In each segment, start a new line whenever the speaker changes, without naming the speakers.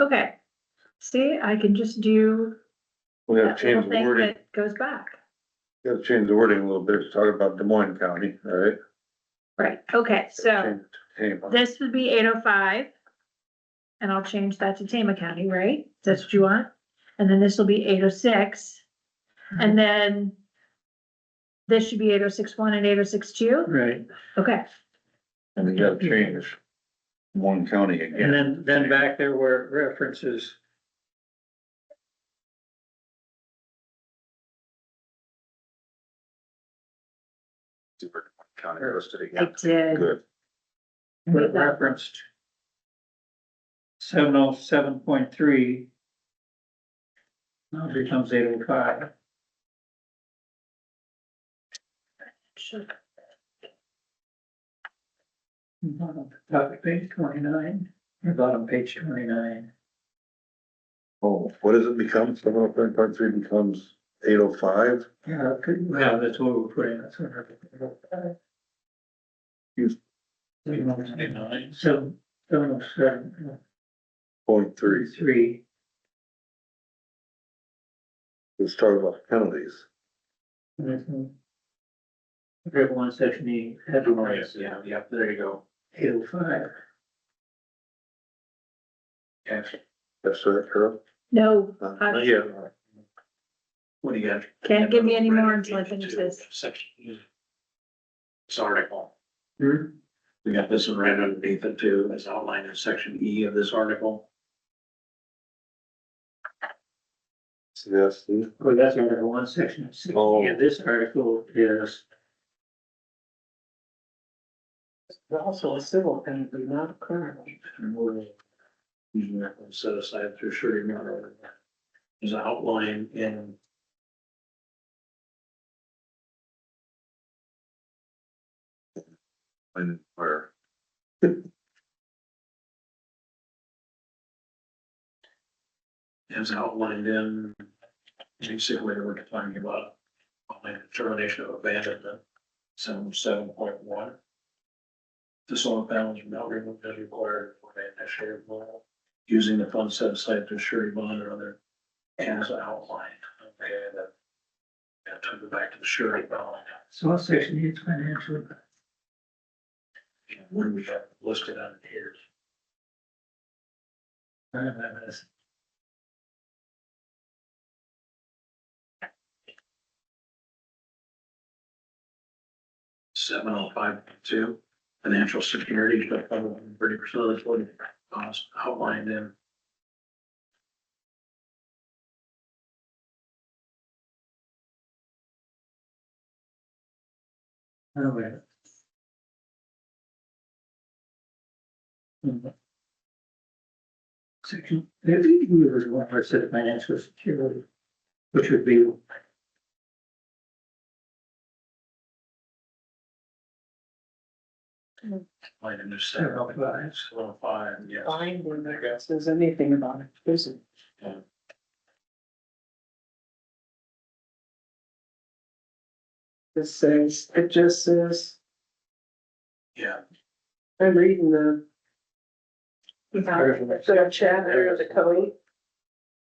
Okay, see, I can just do.
We
that
gotta change
little
the
thing
wording,
that Goes back,
gotta change the wording a little bit, to talk about Des Moines County, all right?
right, okay, so
Change to Tama.
this would be eight oh five. And I'll change that to Tama County, right? That's what you want? And then this will be eight oh six. And then this should be eight oh six one and eight oh six two,
Right,
okay,
And we gotta change one county
and
again.
then, then back there where it references.
County listed
I
again.
did,
Good.
where it referenced. Seven oh seven point three. Now it becomes eight oh five.
Should-
Bottom top of page twenty-nine, or bottom page twenty-nine.
Oh, what does it become? Seven oh three point three becomes eight oh five?
Yeah, could, well, that's what we're putting, that's what. we're-
Use-
7.29, Seven, seven oh seven,
Point
three,
three,
three.
let's talk about penalties.
Everyone section E,
Oh,
headlines. Yeah, yeah, there you go. Eight oh five.
That's right, Carol?
No,
Uh,
Uh,
Yeah.
What do you got?
can't give me any more until I finish this,
Section. This article, we got this one right underneath it too, as outlined in section E of this article.
See, that's the-
Well, that's article one, section six.
Oh.
Yeah, this article is.
Also a civil penalty, not a criminal.
and we're Using that one set aside through surety matter. Is outlined in.
and where.
as outlined in, basically, we're talking about only determination of abandonment, seven, seven point one. The solar panels are not removed as required for an initial model, using the funds set aside to surety bond or other as outlined. Okay, that, that took it back to the surety bond,
So what section E is financial?
and when we have listed on here.
I don't have this.
seven oh five point two, financial security, but thirty percent of the total cost outlined in
I don't have it. Hmm. Section fifty, there's one where it said financial security, which would be
Might have just said
seven oh five.
seven five, yes.
Binding, that says anything about a prison. This says, it just says,
Yeah,
I'm reading the. The chapter of the code.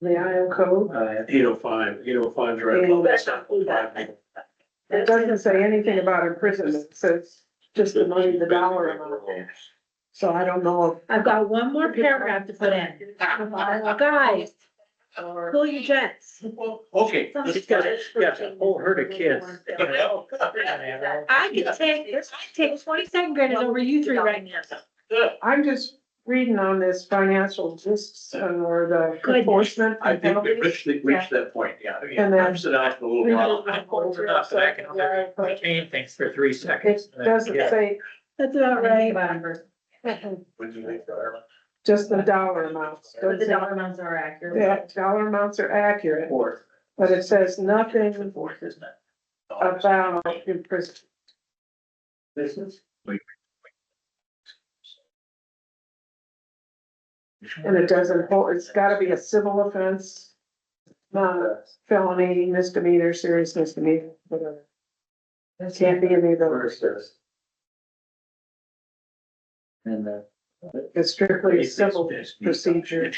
The Iowa code.
Uh,
eight oh five, eight oh five's right.
Yeah,
above
that's
that.
not- It doesn't say anything about imprisonment, it says just the money, the dollar amount. So I don't know
I've got one more paragraph to put in. Guys,
if, or.
pull your jets.
Well, okay.
Some-
It's got, it's got a
Oh,
whole herd of kids.
I could take, I could take twenty second graders over you three right now.
I'm just reading on this financial risks or the
Goodness.
enforcement.
I think we
penalties.
reached, the- reached that point, yeah. yeah,
And then-
I'm sitting out for a
We
little while.
did-
Retain things for three
It
seconds.
doesn't say
That's about right.
When you leave for Ireland.
just the dollar amounts. Doesn't say
amounts are accurate.
That dollar amounts are accurate,
Fourth,
but it says nothing
fourth, isn't it?
about imprisonment.
Business.
And it doesn't hold, it's gotta be a civil offense, not a felony, misdemeanor, serious misdemeanor, whatever. It can't be any of those.
And the.
It's strictly civil procedure.